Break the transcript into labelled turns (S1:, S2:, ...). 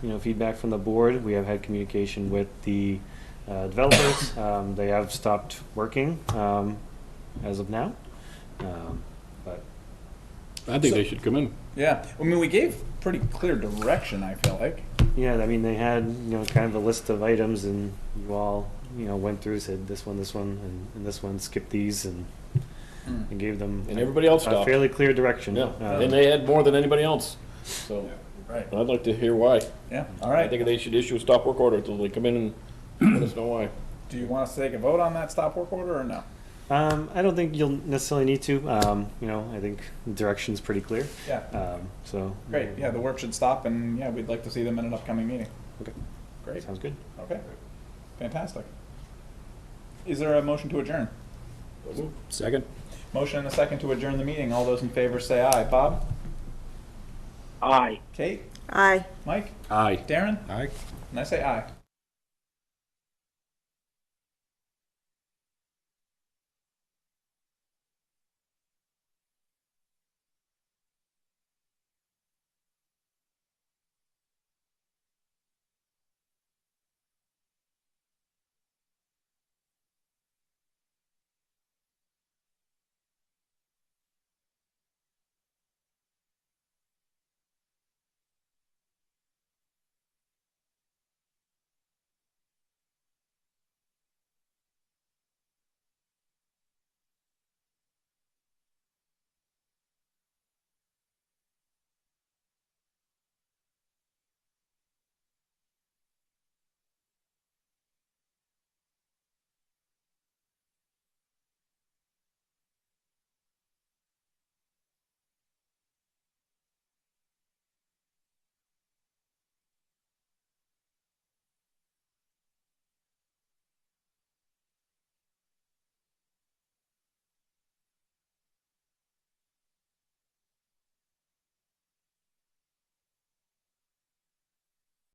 S1: you know, feedback from the board. We have had communication with the uh, developers. Um, They have stopped working um, as of now. Um, But
S2: I think they should come in.
S3: Yeah, I mean, we gave pretty clear direction. I feel like.
S1: Yeah, I mean, they had, you know, kind of a list of items and you all, you know, went through, said this one, this one, and, and this one, skip these and,
S3: Mm.
S1: and gave them.
S2: And everybody else
S1: A
S2: stopped.
S1: fairly clear direction.
S2: Yeah,
S1: Um,
S2: and they had more than anybody else. So
S3: Right.
S2: I'd like to hear why.
S3: Yeah. All
S2: I
S3: right.
S2: think they should issue a stop work order until they come in and let us know why.
S3: Do you want us to take a vote on that stop work order or no?
S1: Um, I don't think you'll necessarily need to, um, you know, I think the direction's pretty clear,
S3: Yeah.
S1: um, so.
S3: Great. Yeah, the work should stop, and yeah, we'd like to see them in an upcoming meeting.
S1: Okay.
S3: Great.
S1: Sounds good.
S3: Okay. Fantastic. Is there a motion to adjourn?
S2: Second?
S3: Motion and a second to adjourn the meeting. All those in favor say aye. Bob? Aye. Kate?
S4: Aye.
S3: Mike?
S2: Aye.
S3: Darren?
S2: Aye.
S3: And I say aye.